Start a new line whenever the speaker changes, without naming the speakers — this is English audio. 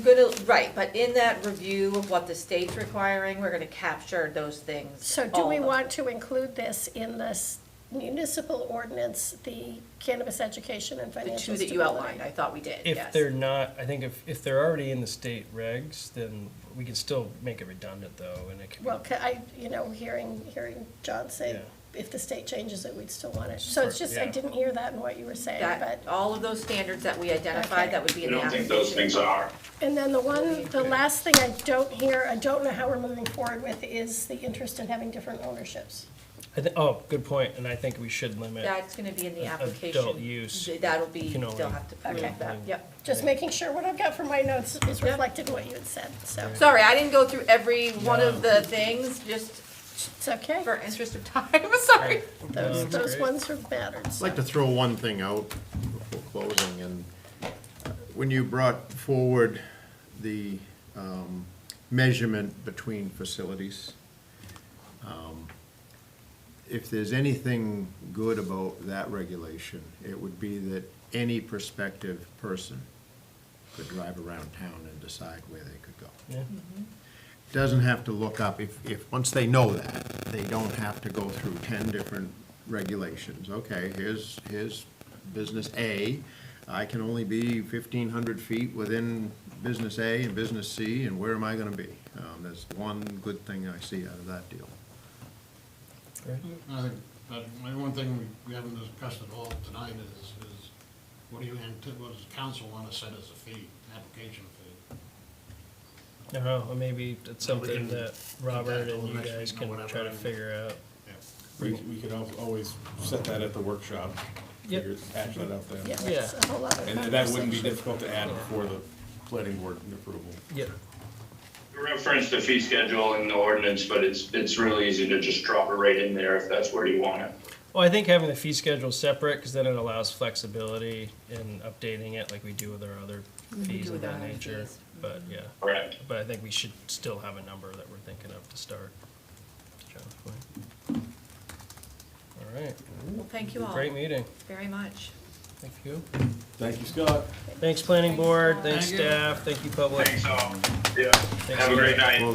Good, right, but in that review of what the state's requiring, we're gonna capture those things.
So do
all
we
of them.
want to include this in this municipal ordinance, the cannabis education and
The
financial
two
stability?
that you outlined, I thought we did, yes.
If they're not, I think if, if they're already in the state regs, then we can still make it redundant though, and it can
Well,
be,
ca- I, you know, hearing, hearing John say,
Yeah.
if the state changes it, we'd still want it. So it's
Sure,
just, I
yeah.
didn't hear that in what you were saying,
That,
but,
all of those standards that we identified,
Okay.
that would be
I
in the
don't
application.
think those things are.
and then the one, the last thing I don't hear, I don't know how we're moving forward with is the interest in having different ownerships.
I think, oh, good point, and I think we should limit.
That's gonna be in the
Adult
application.
use.
Th- That'll be,
Can only-
they'll have to
Okay.
prove that, yep.
Just making sure what I've got for my notes is
Yep.
reflected in what you had said, so,
Sorry, I didn't go through every one of
No.
the things, just
it's okay.
for interest of time, sorry.
Those,
that's
those
great.
ones are mattered,
I'd like to throw one thing out before closing, and when you brought forward the um, measurement between facilities, um, if there's anything good about that regulation, it would be that any prospective person could drive around town and decide where they could go
Yeah.
doesn't have to look up, if, if, once they know that, they don't have to go through ten different regulations. Okay, here's, here's business A, I can only be fifteen hundred feet within business A and business C, and where am I gonna be? Um, that's one good thing I see out of that deal.
Great.
I think, but my one thing we, we haven't discussed at all tonight is, is what do you, ant- what does council want to set as a fee, application fee?
No, or Uh-huh, maybe it's
Well, we
something
can
that
do
Robert
that
and you
next week
guys
or
can
whatever,
try to
and-
figure out.
Yeah.
We, we could al- always set that at the workshop.
Yep.
figure- Hash that out
yeah,
there.
it's a whole lot of
And and that wouldn't be
conversation.
difficult to add before the planning board approval.
Yeah.
You referenced the fee schedule in the ordinance, but it's, it's really easy to just drop it right in there if that's where you want it.
Well, I think having the fee schedule separate, because then it allows flexibility in updating it like we do with our other fees
do
of
with our
that
other
nature.
fees.
But, yeah,
Correct.
but I think we should still have a number that we're thinking of to start. to John's point. All right,
Well, thank you all
great meeting,
very much.
Oh. thank you.
Thank you, Scott.
Thanks, planning board, thanks, staff, thank you, public.
Thanks all. Yeah.
Thanks,
Have a great
Scott.
night.